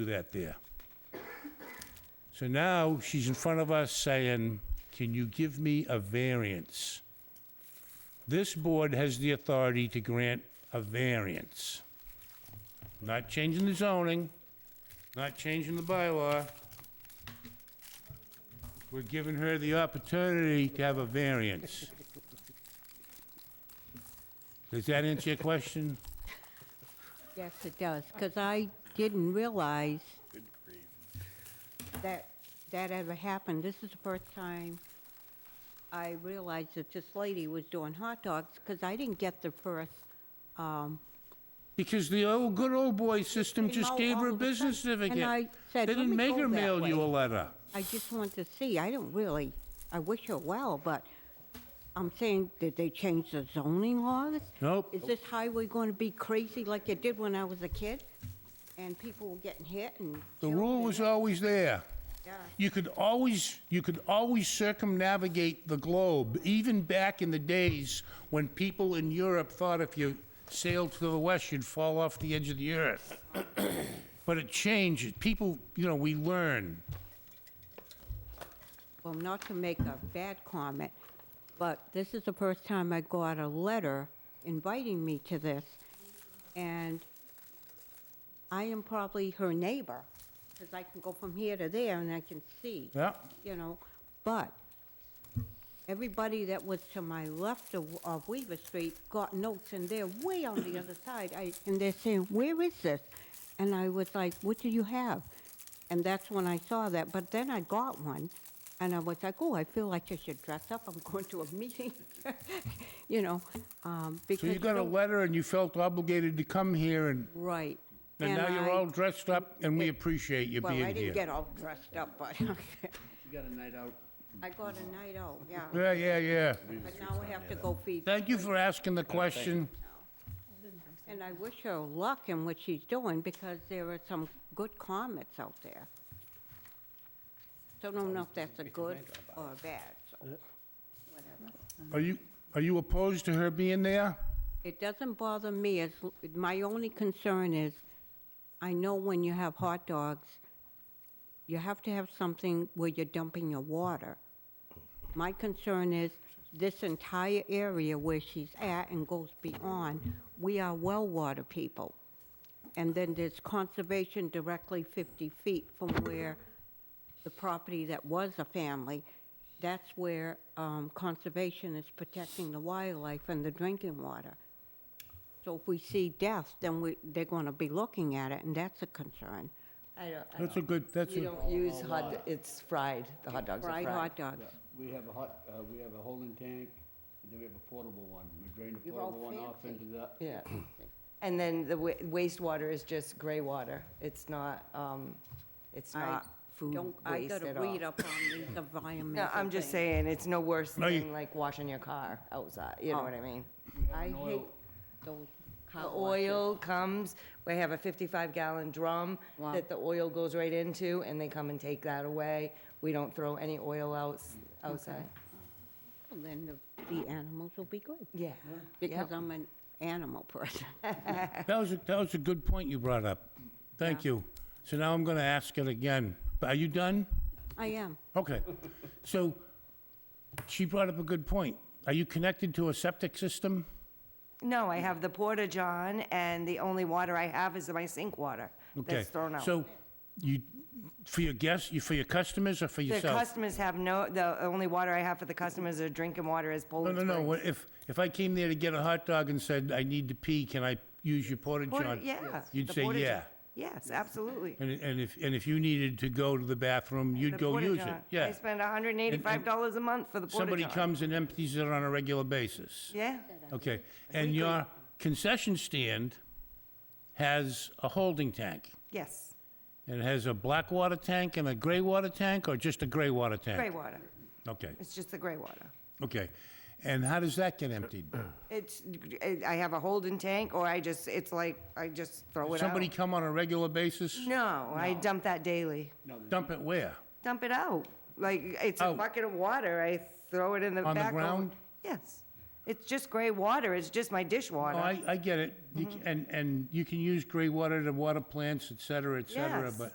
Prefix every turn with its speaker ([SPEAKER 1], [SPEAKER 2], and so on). [SPEAKER 1] do that there. So now she's in front of us saying, can you give me a variance? This board has the authority to grant a variance. Not changing the zoning, not changing the bylaw. We're giving her the opportunity to have a variance. Does that answer your question?
[SPEAKER 2] Yes, it does, because I didn't realize that that ever happened. This is the first time I realized that this lady was doing hot dogs, because I didn't get the first, um,
[SPEAKER 1] Because the old, good old boy system
[SPEAKER 2] They
[SPEAKER 1] just
[SPEAKER 2] know
[SPEAKER 1] gave
[SPEAKER 2] all
[SPEAKER 1] her a
[SPEAKER 2] of a sudden.
[SPEAKER 1] business certificate.
[SPEAKER 2] And I said,
[SPEAKER 1] They
[SPEAKER 2] "Let
[SPEAKER 1] didn't
[SPEAKER 2] me
[SPEAKER 1] make
[SPEAKER 2] go
[SPEAKER 1] her
[SPEAKER 2] that
[SPEAKER 1] mail you a
[SPEAKER 2] way."
[SPEAKER 1] letter.
[SPEAKER 2] I just want to see, I don't really, I wish her well, but I'm saying, did they change the zoning laws?
[SPEAKER 1] Nope.
[SPEAKER 2] Is this highway going to be crazy like it did when I was a kid? And people were getting hit and...
[SPEAKER 1] The
[SPEAKER 2] killed
[SPEAKER 1] rule
[SPEAKER 2] and-
[SPEAKER 1] was always there.
[SPEAKER 2] Yeah.
[SPEAKER 1] You could always, you could always circumnavigate the globe, even back in the days when people in Europe thought if you sailed to the west, you'd fall off the edge of the earth. But it changed. People, you know, we learn.
[SPEAKER 2] Well, not to make a bad comment, but this is the first time I got a letter inviting me to this, and I am probably her neighbor, because I can go from here to there and I can see,
[SPEAKER 1] Yeah.
[SPEAKER 2] you know, but everybody that was to my left of of Weaver Street got notes, and they're way on the other side, I- and they're saying, where is this? And I was like, what do you have? And that's when I saw that, but then I got one, and I was like, oh, I feel like I should dress up, I'm going to a meeting, you know, um, because.
[SPEAKER 1] So you got a
[SPEAKER 2] don't-
[SPEAKER 1] letter and you felt obligated to come here and,
[SPEAKER 2] Right.
[SPEAKER 1] and now you're
[SPEAKER 2] I-
[SPEAKER 1] all dressed up and we
[SPEAKER 2] it-
[SPEAKER 1] appreciate you being
[SPEAKER 2] Well,
[SPEAKER 1] here.
[SPEAKER 2] I didn't get all dressed up, but
[SPEAKER 3] You got a night out.
[SPEAKER 2] I got a night out, yeah.
[SPEAKER 1] Yeah, yeah, yeah.
[SPEAKER 2] But now I have to go feed
[SPEAKER 1] Thank you for asking the question.
[SPEAKER 2] And I wish her luck in what she's doing, because there are some good comments out there. Don't know if that's a good or a bad, so, whatever.
[SPEAKER 1] Are you, are you opposed to her being there?
[SPEAKER 2] It doesn't bother me, as, my only concern is, I know when you have hot dogs, you have to have something where you're dumping your water. My concern is, this entire area where she's at and goes beyond, we are well water people. And then there's conservation directly 50 feet from where the property that was a family, that's where um, conservation is protecting the wildlife and the drinking water. So if we see death, then we, they're going to be looking at it, and that's a concern.
[SPEAKER 4] I don't, I
[SPEAKER 1] That's
[SPEAKER 4] don't.
[SPEAKER 1] a good, that's
[SPEAKER 4] You
[SPEAKER 1] a,
[SPEAKER 4] don't use hot, it's fried, the hot dogs are
[SPEAKER 2] Fried
[SPEAKER 4] fried.
[SPEAKER 2] hot dogs.
[SPEAKER 3] We have a hot, uh, we have a holding tank, and then we have a portable one. We drain the
[SPEAKER 2] You're all
[SPEAKER 3] portable one off
[SPEAKER 2] fancy.
[SPEAKER 3] into the,
[SPEAKER 4] Yeah. And then the wa- wastewater is just gray water. It's not, um, it's
[SPEAKER 2] I
[SPEAKER 4] not food
[SPEAKER 2] don't-
[SPEAKER 4] waste
[SPEAKER 2] I
[SPEAKER 4] at
[SPEAKER 2] got to
[SPEAKER 4] all.
[SPEAKER 2] read up on these environmental
[SPEAKER 4] No, I'm just
[SPEAKER 2] things.
[SPEAKER 4] saying, it's no worse
[SPEAKER 1] No, you-
[SPEAKER 4] than like washing your car outside, you
[SPEAKER 2] Oh.
[SPEAKER 4] know what I mean?
[SPEAKER 2] I
[SPEAKER 3] an oil-
[SPEAKER 2] hate those
[SPEAKER 4] The
[SPEAKER 2] car washes.
[SPEAKER 4] oil comes, we have a 55 gallon drum
[SPEAKER 2] Wow.
[SPEAKER 4] that the oil goes right into and they come and take that away. We don't throw any oil out, outside.
[SPEAKER 2] Well, Then the- the animals will be good,
[SPEAKER 4] Yeah.
[SPEAKER 2] because
[SPEAKER 4] Yep.
[SPEAKER 2] I'm an animal person.
[SPEAKER 1] that was, a- that was a good point you brought up. Thank you. So now I'm gonna ask it again. Are you done?
[SPEAKER 2] I am.
[SPEAKER 1] Okay. So she brought up a good point. Are you connected to a septic system?
[SPEAKER 4] No, I have the porta john, and the only water I have is my sink water
[SPEAKER 1] Okay.
[SPEAKER 4] that's thrown out.
[SPEAKER 1] So you, for your guests, you, for your customers or for
[SPEAKER 4] The
[SPEAKER 1] yourself?
[SPEAKER 4] customers have no, the only water I have for the customers are drinking water is
[SPEAKER 1] No,
[SPEAKER 4] Poland
[SPEAKER 1] no,
[SPEAKER 4] Springs.
[SPEAKER 1] no. What- If, if I came there to get a hot dog and said, I need to pee, can I use your porta
[SPEAKER 4] Porta-
[SPEAKER 1] john?
[SPEAKER 4] yeah,
[SPEAKER 1] You'd
[SPEAKER 4] the
[SPEAKER 1] say,
[SPEAKER 4] porta john.
[SPEAKER 1] yeah.
[SPEAKER 4] Yes, absolutely.
[SPEAKER 1] And, and if, and if you needed to go to the bathroom,
[SPEAKER 4] The
[SPEAKER 1] you'd go
[SPEAKER 4] porta
[SPEAKER 1] use it,
[SPEAKER 4] john.
[SPEAKER 1] yeah.
[SPEAKER 4] I spend $185 a month for the porta
[SPEAKER 1] Somebody
[SPEAKER 4] john.
[SPEAKER 1] comes and empties it on a regular basis.
[SPEAKER 4] Yeah,
[SPEAKER 1] Okay, and your concession stand has a holding tank.
[SPEAKER 4] yes,
[SPEAKER 1] And it has a black water tank and a gray water tank, or just a gray water tank?
[SPEAKER 4] gray water.
[SPEAKER 1] Okay,
[SPEAKER 4] It's just the gray water.
[SPEAKER 1] okay. And how does that get emptied?
[SPEAKER 4] It's, I have a holding tank, or I just, it's like, I just throw it out.
[SPEAKER 1] Somebody come on a regular basis?
[SPEAKER 4] No, I dump that daily.
[SPEAKER 1] Dump it where?
[SPEAKER 4] dump it out. Like, it's a
[SPEAKER 1] Out.
[SPEAKER 4] bucket of water, I throw it in the back.
[SPEAKER 1] Oh. On the
[SPEAKER 4] over-
[SPEAKER 1] ground?
[SPEAKER 4] Yes. It's just gray water, it's just my
[SPEAKER 1] Oh,
[SPEAKER 4] dishwater. Mm-hmm.
[SPEAKER 1] I, I get it. You c- And, and you can use gray water to water plants, et cetera, et cetera,
[SPEAKER 4] Yes.
[SPEAKER 1] but